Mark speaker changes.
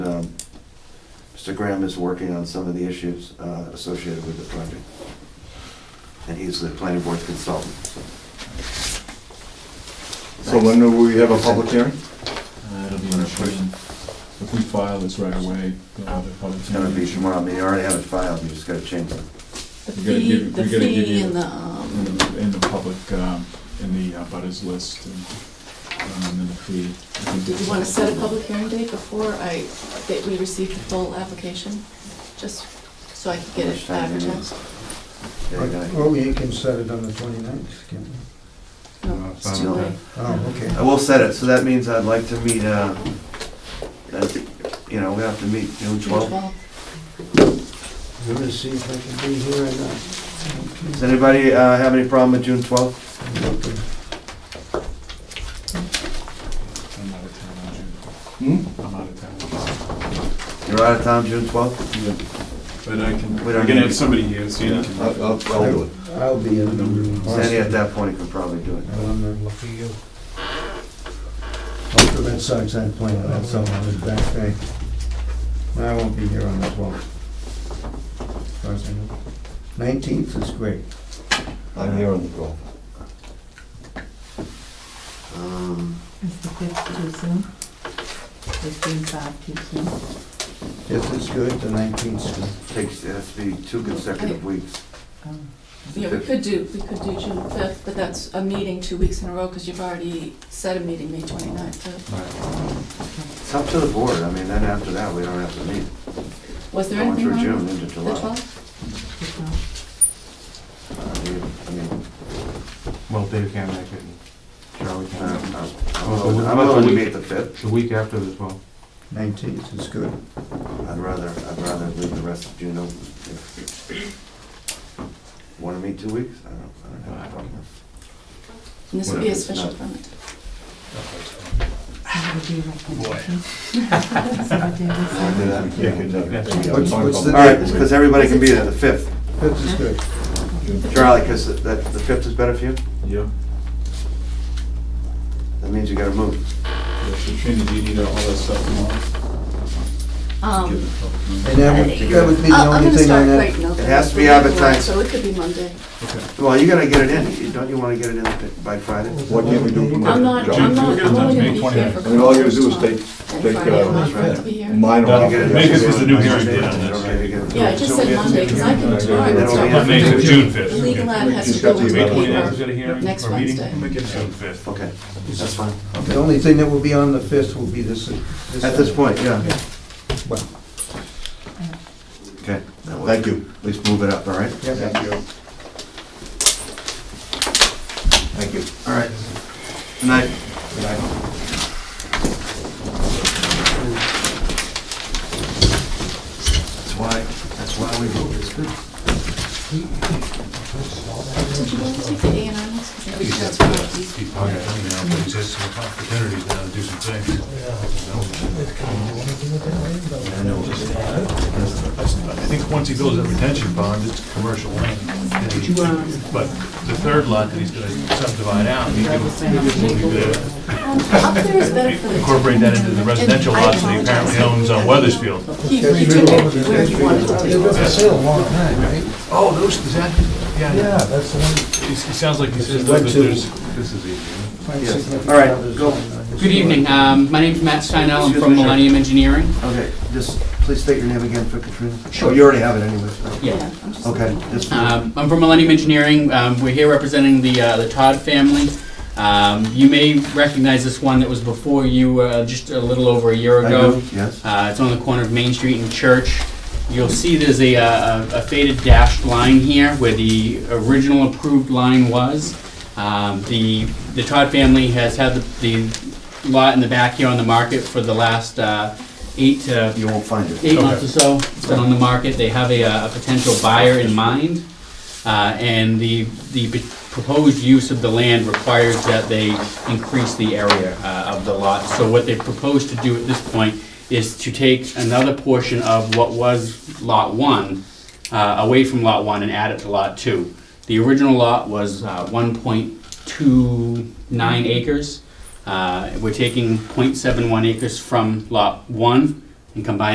Speaker 1: Mr. um, Graham is working on some of the issues uh, associated with the project. And he's the planning board's consultant, so.
Speaker 2: So when do we have a public hearing?
Speaker 3: Uh, It'll be in the prison. If we file this right away, we'll have a public
Speaker 1: Oh, It's gonna be
Speaker 3: hearing.
Speaker 1: tomorrow, I mean, you already have it filed, you just gotta change it.
Speaker 4: The
Speaker 3: We gotta
Speaker 4: fee,
Speaker 3: give-
Speaker 4: the
Speaker 3: we gotta give
Speaker 4: fee
Speaker 3: you-
Speaker 4: and the,
Speaker 3: In
Speaker 4: um,
Speaker 3: the- in the public, um, in the uh, butters list and, um, in the fee. I think
Speaker 4: did you
Speaker 3: that's-
Speaker 4: wanna set a public hearing date before I, that we receive the full application? Just so I could get it
Speaker 1: Understand, yeah.
Speaker 4: advertised?
Speaker 1: They're gonna-
Speaker 5: Well, we Oh, can set it on the 29th, can't we?
Speaker 4: No, it's too late.
Speaker 5: Oh, okay.
Speaker 1: I will set it, so that means I'd like to meet, uh, that's- you know, we have to meet June
Speaker 4: June
Speaker 1: twelfth.
Speaker 4: 12th.
Speaker 5: I'm gonna see if I can be here or not.
Speaker 1: Does anybody uh, have any problem with June twelfth?
Speaker 5: Okay.
Speaker 3: I'm out of town on June.
Speaker 1: Hmm?
Speaker 3: I'm out of town.
Speaker 1: You're out of town June twelfth?
Speaker 3: But I can,
Speaker 1: We
Speaker 3: we're
Speaker 1: don't
Speaker 3: gonna
Speaker 1: need- Oh,
Speaker 3: have somebody here, so you can.
Speaker 2: I'll, I'll I'll do it.
Speaker 5: I'll be in.
Speaker 1: Sandy, at that point, you could probably do it.
Speaker 5: Lucky you. Hope the Red Sox aren't playing, that's all on his back day. I won't be here on the 12th. As far as I know. 19th is great.
Speaker 1: Uh,
Speaker 2: I'm here on the call.
Speaker 1: Um,
Speaker 6: Is the fifth too soon? Fifteen five too soon?
Speaker 5: 5th is good, the 19th is good.
Speaker 1: Takes, it has to be two consecutive weeks.
Speaker 6: Oh.
Speaker 4: Yeah, we could do, we could do June 5th, but that's a meeting two weeks in a row, because you've already set a meeting May 29th. too.
Speaker 1: It's up to the board, I mean, then after that, we don't have to meet.
Speaker 4: Was there
Speaker 1: Going
Speaker 4: anything
Speaker 1: through June
Speaker 4: wrong with
Speaker 1: into
Speaker 4: the
Speaker 1: July.
Speaker 4: 12th?
Speaker 6: It's not.
Speaker 1: Uh, we- I mean,
Speaker 7: Well, Dave can't make it, Charlie
Speaker 1: uh,
Speaker 7: can't.
Speaker 1: I'm I'm willing to meet the fifth.
Speaker 7: The week after as well.
Speaker 5: 19th is good.
Speaker 1: I'd rather, I'd rather leave the rest of June open. If- Wanna meet two weeks? I don't, I don't have a problem.
Speaker 4: And this would be a
Speaker 1: Whatever, it's
Speaker 4: special
Speaker 1: not-
Speaker 4: permit.
Speaker 6: That would be a recommendation. Is that what David said?
Speaker 1: Wanna do that?
Speaker 2: Yeah, good enough.
Speaker 5: What's, what's
Speaker 1: All
Speaker 5: the
Speaker 1: right,
Speaker 5: date?
Speaker 1: because everybody can be there, the fifth.
Speaker 5: 5th is good.
Speaker 1: Charlie, because that, the fifth is better for you?
Speaker 3: Yeah.
Speaker 1: That means you gotta move.
Speaker 3: Yeah, So Trini, do you need all that stuff tomorrow?
Speaker 4: Um,
Speaker 3: Give it a public hearing.
Speaker 5: And that would, that would be the
Speaker 4: I-
Speaker 5: only thing I
Speaker 4: Oh, I'm gonna start
Speaker 5: had.
Speaker 4: writing out.
Speaker 1: It has to be
Speaker 4: the paperwork,
Speaker 1: advertised.
Speaker 4: So it could be Monday.
Speaker 3: Okay.
Speaker 1: Well, you gotta get it in. You- Don't you wanna get it in by Friday?
Speaker 2: What can we do? tomorrow?
Speaker 4: I'm not,
Speaker 2: Joe?
Speaker 3: June-
Speaker 4: I'm not,
Speaker 3: June
Speaker 4: I'm only gonna
Speaker 3: May
Speaker 4: be here
Speaker 3: 29th.
Speaker 4: for.
Speaker 2: I mean, all you gotta do is take,
Speaker 4: And
Speaker 2: take,
Speaker 4: Friday, I'm not going
Speaker 2: uh,
Speaker 4: to be here.
Speaker 2: mine
Speaker 3: That'll
Speaker 2: off.
Speaker 1: get it.
Speaker 3: Make it was the new hearing date on this, right?
Speaker 4: Yeah, I
Speaker 1: Yeah,
Speaker 4: just said Monday, because I can tomorrow,
Speaker 2: Yeah,
Speaker 4: that's
Speaker 1: that'll
Speaker 4: all
Speaker 1: be
Speaker 4: right.
Speaker 1: May
Speaker 3: May, June fifth.
Speaker 4: The legal ad has to
Speaker 2: She's
Speaker 4: go
Speaker 2: got
Speaker 4: with
Speaker 2: the
Speaker 4: the
Speaker 2: email.
Speaker 4: paper.
Speaker 7: hearing
Speaker 4: Next
Speaker 7: or meeting?
Speaker 4: Wednesday.
Speaker 7: Make it June fifth.
Speaker 1: Okay, that's fine.
Speaker 5: The only thing that will be on the 5th will be this.
Speaker 1: At this point, yeah.
Speaker 5: Well.
Speaker 1: Okay. that works.
Speaker 2: Thank you.
Speaker 1: At least move it up, all right?
Speaker 5: Yeah, thank you.
Speaker 2: Thank you.
Speaker 1: All right. Good night. That's why, that's why we vote this good.
Speaker 4: Did you want to take the A and R notes? 'Cause I think that's what I do.
Speaker 8: keep on coming out, but it's just some opportunities now to do some things. I think once he builds that retention pond, it's commercial land.
Speaker 4: uh,
Speaker 8: But the third lot that he's gonna subdivide out, he could he could, uh,
Speaker 4: Up there is better for the.
Speaker 8: incorporate that into the residential
Speaker 4: And I
Speaker 8: lots that he apparently owns on Weathersfield.
Speaker 4: apologize. He retook it where he wanted to take it.
Speaker 8: Oh, those, is that, yeah. Yeah, that's the one. It sounds like he says, that, but there's, this is easy.
Speaker 1: All right, go.
Speaker 9: Good evening, um, my name's Matt Steinel, I'm
Speaker 1: Excuse
Speaker 9: from
Speaker 1: me, sir.
Speaker 9: Millennium Engineering.
Speaker 1: Okay, just please state your name again for Katrina.
Speaker 9: Sure.
Speaker 1: Oh, You already have it anyway.
Speaker 9: Yeah.
Speaker 4: Yeah, I'm just
Speaker 1: Okay,
Speaker 4: looking.
Speaker 1: just,
Speaker 9: Um, I'm from Millennium Engineering, um, we're here representing the, uh, the Todd family. Um, you may recognize this one that was before you, uh, just a little over a year
Speaker 1: I
Speaker 9: ago.
Speaker 1: do, yes.
Speaker 9: Uh, it's on the corner of Main Street and Church. You'll see there's a, uh, a a faded dashed line here where the original approved line was. Um, the, the Todd family has had the, the lot in the back here on the market for the last, uh, eight to
Speaker 1: You won't find it.
Speaker 9: eight months or so, it's been on the market, they have a, uh, a potential buyer in mind. Uh, and the, the p- proposed use of the land requires that they increase the area, uh, of the lot. So what they propose to do at this point is to take another portion of what was lot one, uh, away from lot one and add it to lot two. The original lot was, uh, one point two nine acres. Uh, we're taking 0.71 acres from lot one and combining